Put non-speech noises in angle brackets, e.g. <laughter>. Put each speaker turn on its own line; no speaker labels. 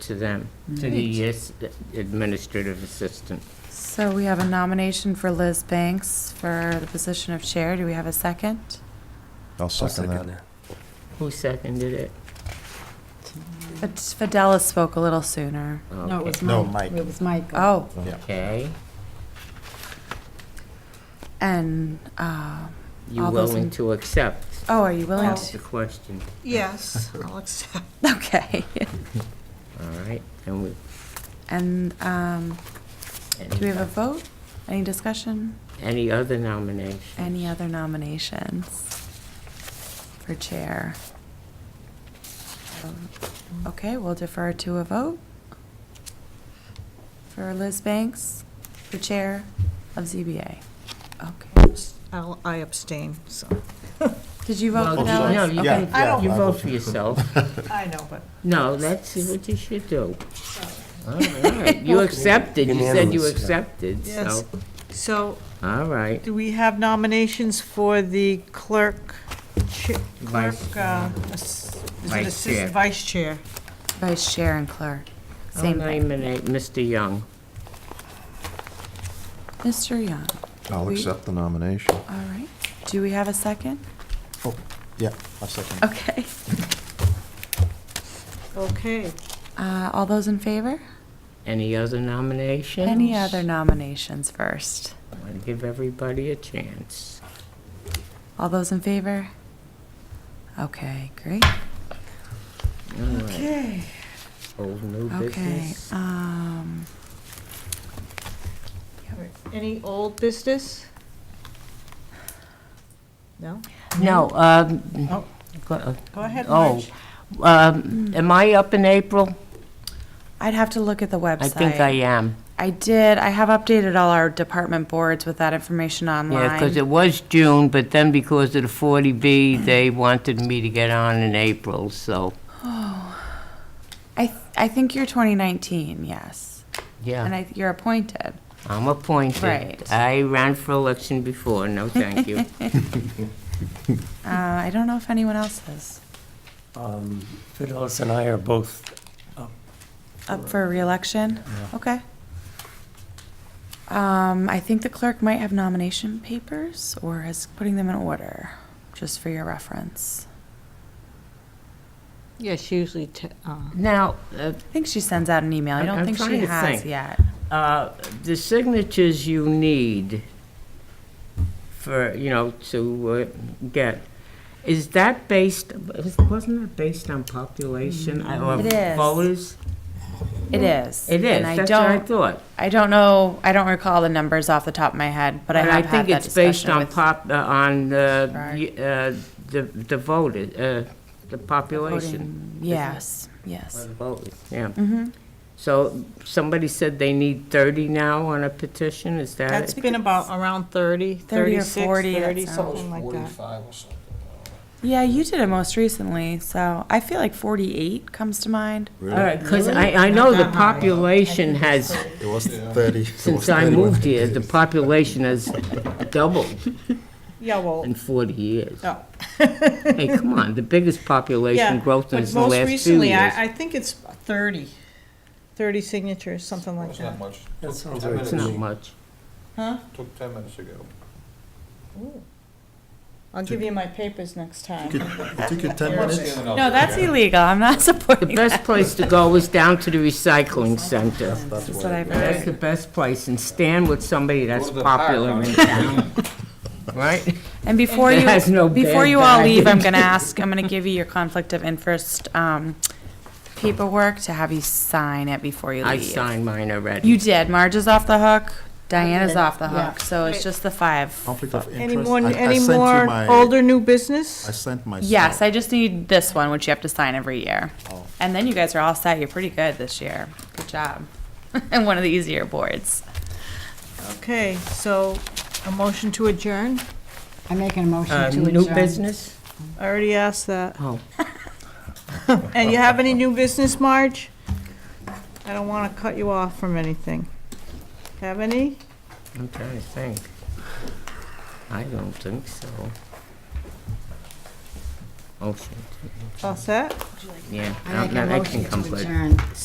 to them, to the as- administrative assistant.
So we have a nomination for Liz Banks for the position of chair. Do we have a second?
I'll second that.
Who seconded it?
But Fidelis spoke a little sooner.
No, it was
No,
Mike.
Mike.
It was Mike.
Oh,
Okay.
and, uh,
You
All those in-
willing to accept?
oh, are you willing
That's the
to?
question,
Yes, I'll accept.
<laughs> Okay.
all right? And we.
And um,
and
do we have a vote? Any discussion?
Any other nomination?
Any other nominations for chair? Um, Okay, we'll defer to a vote for Liz Banks for chair of ZBA. Okay.
I'll, I abstain, so.
Did you
Well,
vote for
you- No,
Dallas?
you
Yeah,
can-
I don't-
you vote for yourself.
I know, but.
No, that's what you should do. All
<laughs>
right, you accepted, you said you
Unanimous, yeah.
accepted,
Yes.
so,
So
all right.
do we have nominations for the clerk, chi- clerk,
Vice-
uh, ass-
Vice
is it
chair.
assistant vice chair?
Vice chair and clerk,
I'll
same thing.
nominate Mr. Young.
Mr. Young,
<laughs> I'll
We-
accept the nomination.
all right. Do we have a second?
Yeah, I'll second.
Okay.
Okay,
Uh, All those in favor?
Any other nominations?
Any other nominations first?
Want to give everybody a chance.
All those in favor? Okay, great.
All right, old new
Okay,
business.
um,
any old business? No?
No,
Oh.
um, go-
Go ahead,
Oh,
Marge.
Hmm.
um, am I up in April?
I'd have to look at the website.
I think I am.
I did, I have updated all our department boards with that information online.
Yeah, because it was June, but then because of the 40B, they wanted me to get on in April, so,
I, th- I think you're 2019, yes, and
yeah,
I, you're appointed.
I'm appointed.
Right.
I ran for election before, no thank
<laughs>
you.
Uh, I don't know if anyone else is
Um, Fidelis and I are both
up for reelection. Okay. Um, I think the clerk might have nomination papers or is putting them in order, just for your reference.
Yes, usually.
Now, uh,
I think she sends out an email. I
I'm-
don't
I'm
think she
trying to
has
think.
yet.
Uh, the signatures you need for, you know, to uh, get, is that based, is- wasn't that based on population or
Mm-hmm. It is.
voters?
It is.
It is,
And I
that's what I
don't,
thought.
I don't know, I don't recall the numbers off the top of my head, but I
And
have had that
think it's based
discussion
on
with
pop, uh, on uh,
Right.
y- uh, the the voted, uh, the population.
voting. Yes, yes.
Voters, Yeah.
Mm-hmm.
So somebody said they need 30 now on a petition, is that it?
That's been about around 30,
30 or
36,
40, that
30,
sounds-
something like that.
Yeah, you did it most recently, so I feel like 48 comes to mind.
All right, because I, I know the population has,
It was 30.
since I moved here, the population has doubled
Yeah, well,
in 40 years.
no.
<laughs> Hey, come on, the biggest population growth in the last few
But most recently,
years.
I, I think it's 30, 30 signatures, something like that.
much.
That sounds
Ten
right.
It's
minutes.
not much.
Took ten minutes ago.
I'll give you my papers next time.
It took you 10 minutes.
No,
No, that's illegal. I'm not <laughs> supporting
The
that.
best place to go is down to the recycling center.
That's
That's
what
what
it
I've
That's
heard.
the best place, and stand with somebody that's
Go to the
popular <laughs>
park.
in town, right?
And before
It
you,
has no
before
bad
you all
guy.
leave, I'm going to ask, I'm going to give you your conflict of interest um, paperwork to have you sign it before you
I
leave.
signed mine
You
already.
did. Marge is off the hook. Diana's
Okay.
off the
Yeah.
hook. So it's
Right.
just the five.
Conflict of interest.
Any more,
I- I
any
sent you
more
my-
older new
I
business?
sent myself.
Yes, I just need this one, which you have to sign every year.
Oh.
And then you guys are all set. You're pretty good this year. Good job. <laughs> and one of the easier boards.
Okay, so a motion to adjourn?
I make a motion
Uh,
to adjourn.
New business?
I already asked that.
Oh.
And you have any new business, Marge? I don't want to cut you off from anything. Have any?
I'm trying to think. I don't think so. Oh, Motion,
All set?
yeah.
I
no,
make a
no, that can
motion
come
to
later.
adjourn.